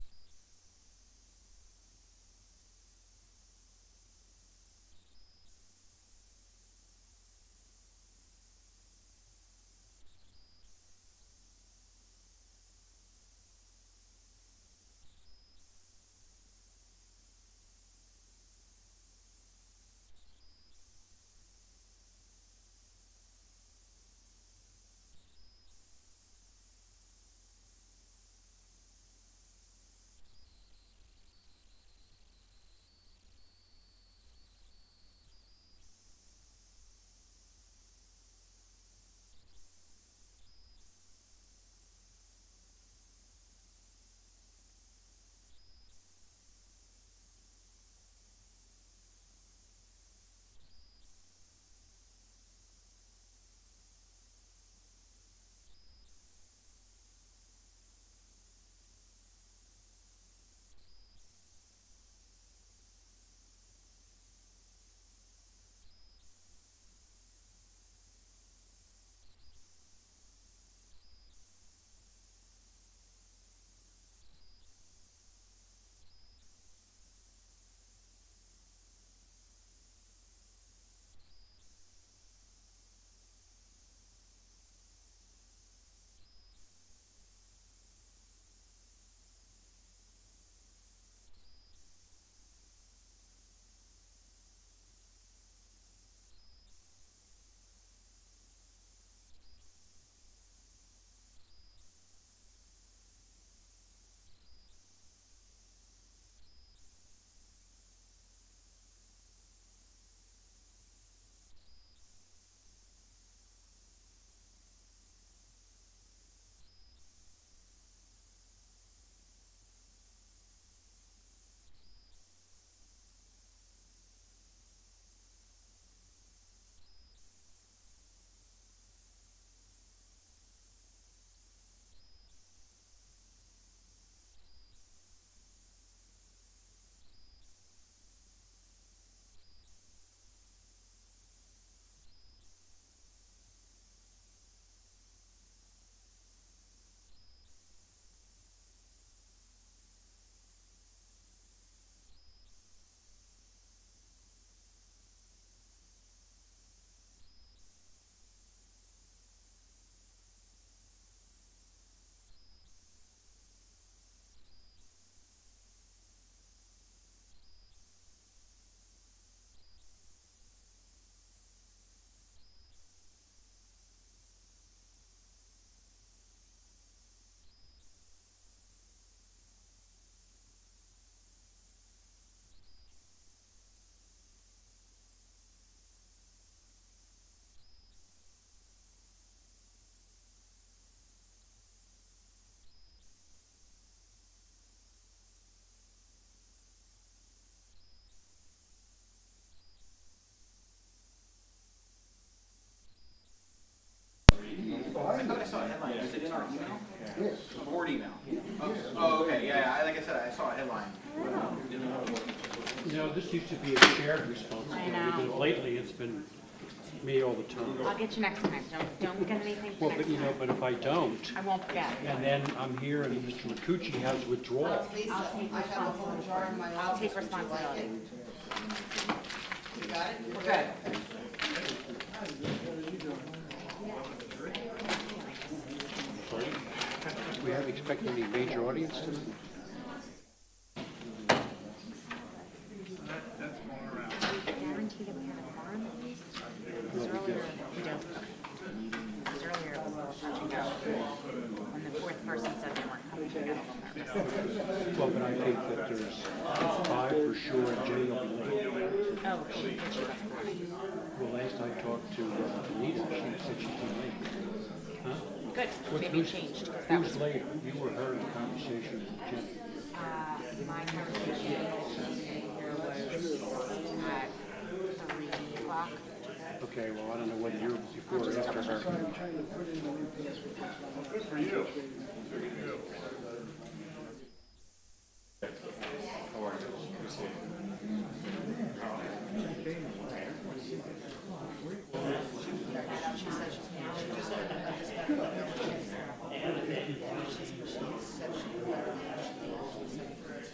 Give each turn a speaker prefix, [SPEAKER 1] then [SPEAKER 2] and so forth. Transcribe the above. [SPEAKER 1] today, Oh, I saw a headline.
[SPEAKER 2] You know, this used to be a shared responsibility,
[SPEAKER 3] I know.
[SPEAKER 2] but lately it's been me all the time.
[SPEAKER 3] I'll get you next time, don't, don't get anything for
[SPEAKER 2] Well, but
[SPEAKER 3] next
[SPEAKER 2] you know,
[SPEAKER 3] time.
[SPEAKER 2] but if I don't,
[SPEAKER 3] I won't forget.
[SPEAKER 2] and then I'm here and Mr. McCucci has withdrawal,
[SPEAKER 4] Lisa,
[SPEAKER 3] I'll take
[SPEAKER 4] I have a whole jar in my
[SPEAKER 3] I'll
[SPEAKER 4] office,
[SPEAKER 3] take
[SPEAKER 4] would you like it?
[SPEAKER 3] responsibility.
[SPEAKER 4] You got it?
[SPEAKER 3] We're good.
[SPEAKER 2] we haven't expected any major audience tonight.
[SPEAKER 3] Guarantee that we have a quorum at least? Because earlier, we don't. Because earlier it was a little touch and go. When the fourth person said they weren't coming, I got a little nervous.
[SPEAKER 2] Well, but I think that there's five for sure and Jay will be late.
[SPEAKER 3] Oh, she said she wasn't coming.
[SPEAKER 2] Well, last I talked to uh, Anita, she said she'd be late. Huh?
[SPEAKER 3] Good,
[SPEAKER 2] What-
[SPEAKER 3] maybe it
[SPEAKER 2] who's-
[SPEAKER 3] changed, because
[SPEAKER 2] Who
[SPEAKER 3] that was,
[SPEAKER 2] was later? You were her in the conversation with Jim.
[SPEAKER 3] uh, my conversation, uh, there was, uh, three o'clock.
[SPEAKER 2] Okay, well, I don't know whether you're before or after her.
[SPEAKER 5] Good for you.